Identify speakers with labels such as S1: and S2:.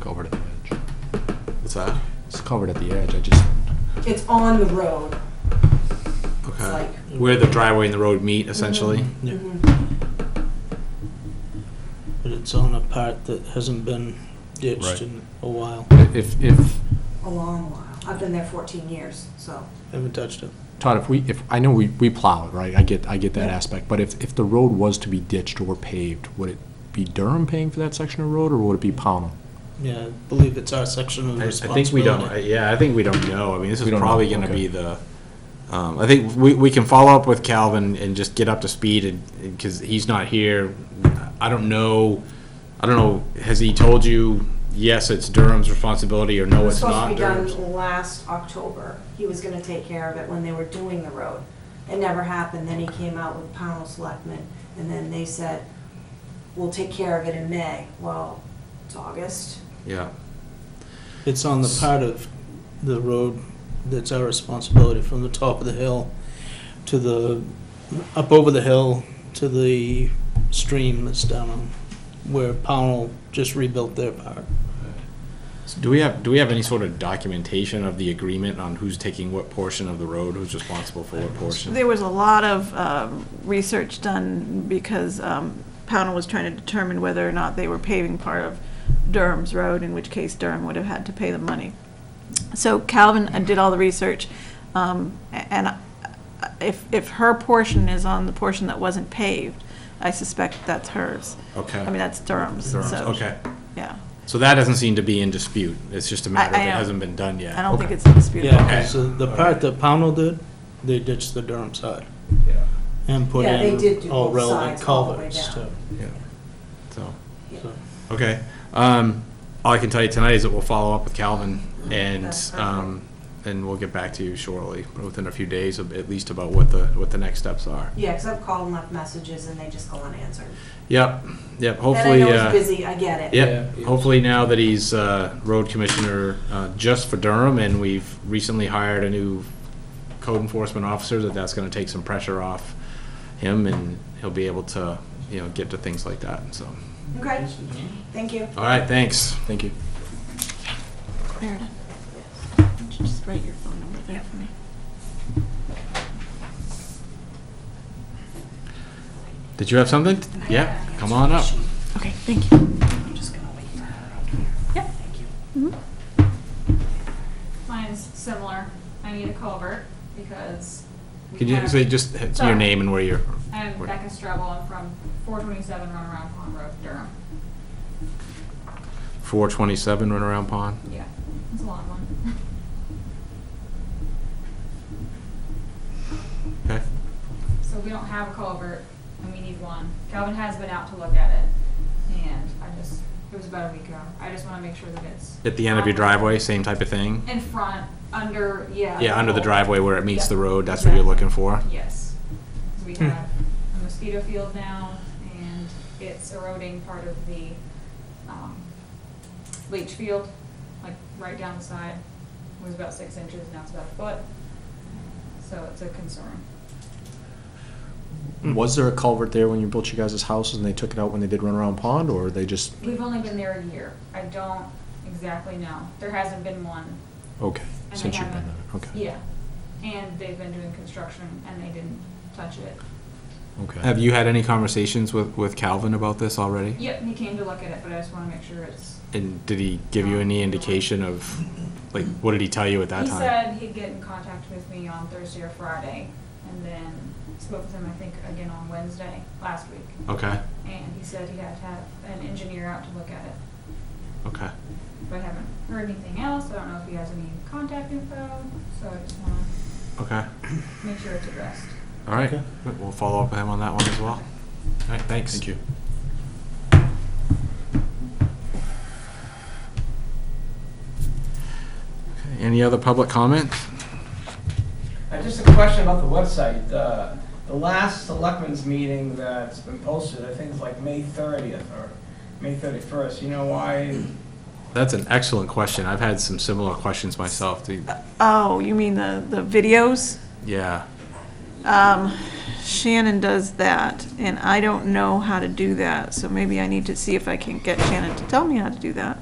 S1: covered at the edge.
S2: What's that?
S1: It's covered at the edge. I just
S3: It's on the road. It's
S2: Okay.
S3: like,
S2: Where the driveway and the road meet, essentially.
S4: Yeah,
S3: mhm.
S4: but it's on a part that hasn't been ditched
S1: Right.
S4: in a while.
S1: if if
S3: a long while. I've been there 14 years, so.
S4: Haven't touched it.
S1: Todd, if we if I know we we plow it right. I get I get that
S4: Yeah.
S1: aspect. But if if the road was to be ditched or paved, would it be Durham paying for that section of road, or would it be Pownell?
S4: Yeah, I believe it's our section of
S2: I, I
S4: responsibility.
S2: think we don't. I- yeah, I think we don't know. I mean, this
S1: We
S2: is
S1: don't know,
S2: probably going to
S1: okay.
S2: be the. Um, I think we, we can follow up with Calvin and just get up to speed, and because he's not here, I don't know. I don't know. Has he told you? Yes, it's Durham's responsibility, or
S3: It
S2: no,
S3: was
S2: it's not.
S3: supposed to be
S2: Durham's?
S3: done last October. He was gonna take care of it when they were doing the road. It never happened, then he came out with panel selectmen, and then they said, we'll take care of it in May. Well, it's August.
S2: Yeah.
S4: It's on the part of the road that's our responsibility, from the top of the hill to the, up over the hill to the stream that's down on, where Pownell just rebuilt their part.
S2: So do we have Do we have any sort of documentation of the agreement on who's taking what portion of the road, who's responsible for what portion?
S5: There was a lot of um, research done because um, Pownell was trying to determine whether or not they were paving part of Durham's road, in which case Durham would have had to pay the money. So Calvin uh, did all the research, um, a- and I- if, if her portion is on the portion that wasn't paved, I suspect that's hers.
S2: Okay.
S5: I mean, that's Durham's,
S2: Durham's,
S5: so.
S2: okay.
S5: Yeah.
S2: So that doesn't seem to be in dispute. It's just a matter
S5: I
S2: of it
S5: don't-
S2: hasn't been done yet.
S5: I don't think
S2: Okay.
S5: it's disputed.
S4: Yeah,
S2: Okay.
S4: so the part that Pownell did, they ditched the Durham side and put
S3: Yeah, they did
S4: in
S3: do
S4: all
S3: both
S4: relevant
S3: sides all the way down.
S4: culverts too.
S2: Yeah. So.
S3: Yeah.
S4: So-
S2: Okay. Um, all I can tell you tonight is that we'll follow up with Calvin and,
S3: That's perfect.
S2: um, and we'll get back to you shortly, within a few days, of- at least about what the, what the next steps are.
S3: Yeah, 'cause I've called and left messages, and they just go unanswered.
S2: Yep, yep,
S3: And
S2: hopefully,
S3: I know he's
S2: uh,
S3: busy, I get it.
S2: yep,
S4: Yeah.
S2: hopefully now that he's, uh, road commissioner, uh, just for Durham and we've recently hired a new code enforcement officer, that that's gonna take some pressure off him and he'll be able to, you know, get to things like that, so.
S3: Okay, thank you.
S2: All right, thanks.
S1: Thank you.
S5: Meredith, would you just write your phone number there for me?
S2: Did you have something? Yeah, come on up.
S5: Okay, thank you.
S3: I'm just gonna wait for her up here.
S6: Yep.
S3: Thank you.
S5: Mm-hmm.
S6: Mine's similar. I need a culvert because. we
S2: Could you
S6: have-
S2: say just h- your
S6: Sorry.
S2: name and where you're?
S6: I'm
S2: where-
S6: Becca Strebel. I'm from 427 Runaround Pond Road, Durham.
S2: 427 Runaround Pond.
S6: Yeah, it's a long one.
S2: Okay.
S6: So we don't have a culvert and we need one. Calvin has been out to look at it and I just, it was about a week ago. I just want to make sure that it's.
S2: At the end of
S6: Um,
S2: your driveway, same type of thing?
S6: In front, under, yeah.
S2: Yeah, under the
S6: culvert.
S2: driveway where it meets
S6: Yeah.
S2: the road, that's what you're
S6: Exactly.
S2: looking for? Hmm.
S6: Yes. 'Cause We have a mosquito field now, and it's eroding part of the um, leach field, like right down the side. It was about six inches, now it's about a foot. So it's a concern.
S1: Was there a culvert there when you built your guys' houses and they took it out when they did run around pond, or they just
S6: We've only been there a year. I don't exactly know. There hasn't been one.
S1: okay
S6: and they
S1: since you've been
S6: haven't-
S1: there? Okay.
S6: Yeah. And they've been doing construction, and they didn't touch it.
S1: Okay.
S2: Have you had any conversations with, with Calvin about this already?
S6: Yep, he came to look at it, but I just want to make sure it's
S2: And did he give you any indication of, like, what did he tell you at that
S6: he
S2: time?
S6: said he'd get in contact with me on Thursday or Friday, and then spoke with him, I think, again on Wednesday last week.
S2: Okay,
S6: And he said he had to have an engineer out to look at it,
S2: okay.
S6: but I haven't heard anything else. I don't know if he has any contact info, so I just want
S2: Okay.
S6: to make sure it's addressed.
S2: All right. We'll follow up with him on that one as well. All right, thanks.
S1: Thank you.
S2: Okay, Any other public comment?
S7: Uh, Just a question about the website. Uh, The last selectmen's meeting that's been posted, I think it's like May 30th or May 31st. You know why?
S2: That's an excellent question. I've had some similar questions myself. Do you-
S5: Oh, you mean the, the videos?
S2: Yeah.
S5: Um, Shannon does that, and I don't know how to do that, so maybe I need to see if I can get Shannon to tell me how to do that.